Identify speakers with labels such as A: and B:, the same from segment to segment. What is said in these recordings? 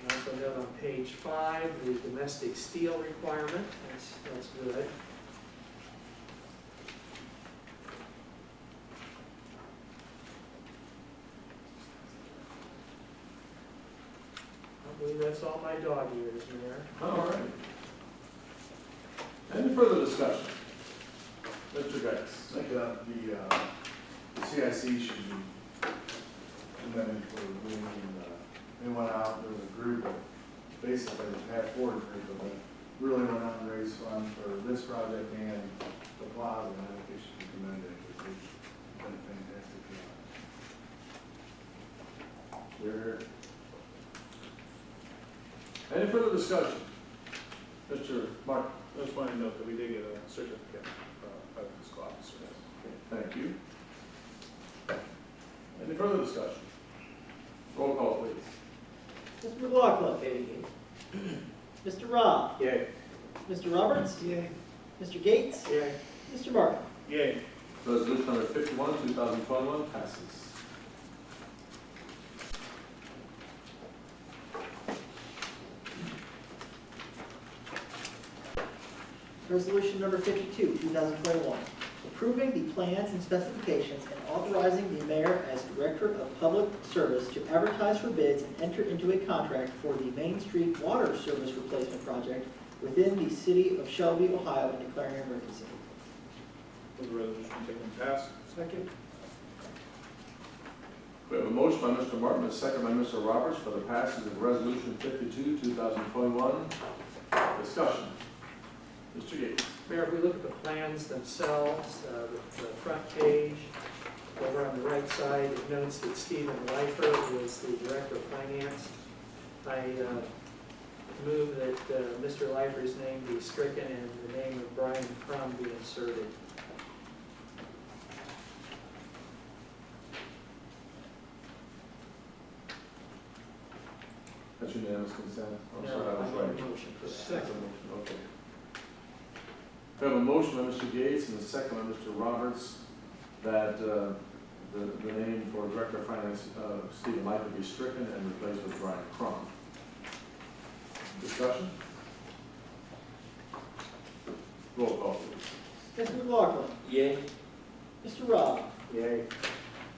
A: we note on page five, the domestic steel requirement, that's, that's good. I believe that's all my dog years, Mayor.
B: All right. Any further discussion? Mr. Geis?
C: think that the, uh, the CIC should be commended for bringing, uh, they went out, there was a group of, basically the Pat Ford group of them, really went out and raised funds for this project and the plaza, and I think they should be commended, because they've done a fantastic job. They're,
B: Any further discussion? Mr. Mark? I just wanted to note that we did get a certificate uh, by the fiscal officer. Thank you. Any further discussion? Roll call, please.
D: Mr. McLaughlin. Mr. Rob.
B: Yay.
D: Mr. Roberts.
A: Yay.
D: Mr. Gates.
A: Yay.
D: Mr. Martin.
B: Yay. Resolution number fifty-one, two thousand twenty-one passes.
D: Resolution number 52, 2021, approving the plans and specifications and authorizing the mayor as Director of Public Service to advertise for bids and enter into a contract for the Main Street Water Service Replacement Project within the city of Shelby, Ohio, and declaring an emergency.
E: Move the resolution taken and passed.
A: Second?
B: We have a motion by Mr. Martin, a second by Mr. Roberts for the passage of Resolution fifty-two, two thousand twenty-one. Discussion. Mr. Gates.
A: Mayor, if we look at the plans themselves, uh, the the front page, over on the right side, it notes that Stephen Lifer was the Director of Finance. I uh, move that uh, Mr. Lifer's name be stricken and the name of Brian Crum be inserted.
B: That's unanimous consent. I'm
A: Now,
B: sorry, I was
A: I need a
B: right.
A: motion for that.
B: That's a motion, Okay. We have a motion by Mr. Gates and a second by Mr. Roberts that uh, the, the name for Director of Finance, uh, Stephen Lifer, be stricken and replaced with Brian Crum. Discussion? Roll call, please.
D: Mr. McLaughlin.
E: Yay.
D: Mr. Rob.
A: Yay.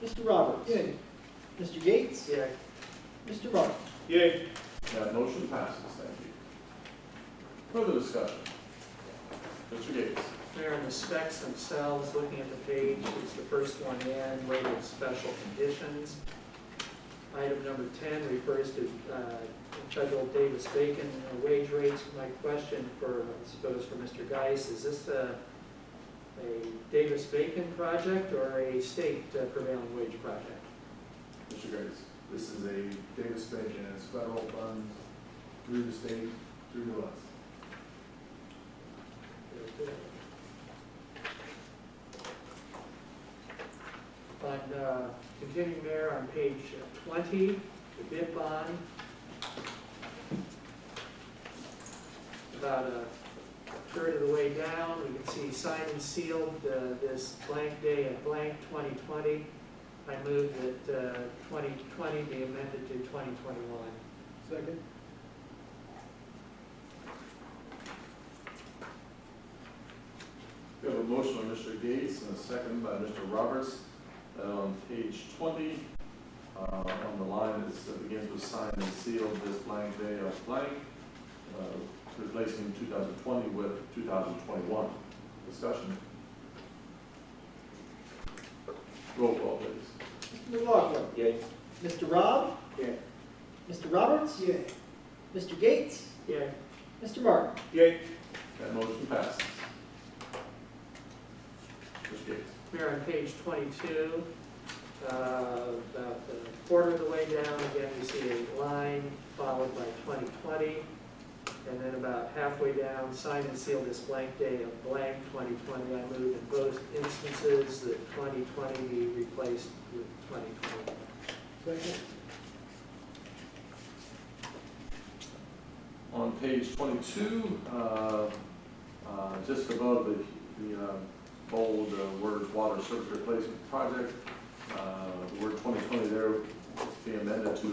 D: Mr. Roberts.
A: Yay.
D: Mr. Gates.
A: Yay.
D: Mr. Martin.
E: Yay.
B: That motion passes, thank you. Further discussion? Mr. Gates?
A: Mayor, in the specs themselves, looking at the page, it's the first one in, labeled special conditions. Item number 10 refers to uh, federal Davis Bacon uh, wage rates. My question for, I suppose for Mr. Geis, is this a a Davis Bacon project or a state uh, prevailing wage project?
B: Mr. Gates?
C: this is a Davis Bacon, it's federal funds through the state, through to us.
A: On, uh, continuing there on page twenty, the bid bond. About a third of the way down, we can see signed and sealed, uh, this blank day of blank twenty twenty. I move that, uh, twenty twenty be amended to twenty twenty-one.
C: Second.
B: We have a motion by Mr. Gates and a second by Mr. Roberts. that On page 20, uh, on the line that's- that begins with signed and sealed this blank day of blank, uh, replacing 2020 with 2021. Discussion? Roll call, please.
D: Mr. McLaughlin.
E: Yay.
D: Mr. Rob.
E: Yay.
D: Mr. Roberts.
A: Yay.
D: Mr. Gates.
A: Yeah,
D: Mr. Martin.
E: Yay.
B: That motion passes. Mr. Gates?
A: Mayor, on page twenty-two, uh, about a quarter of the way down, again, we see a line followed by twenty-twenty, and then about halfway down, sign and seal this blank day of blank twenty-twenty. I move in both instances that twenty-twenty be replaced with twenty-twenty.
B: On page 22, uh, uh, just above the, the uh, bold uh, words, water service replacement project, uh, the word 2020 there, be amended to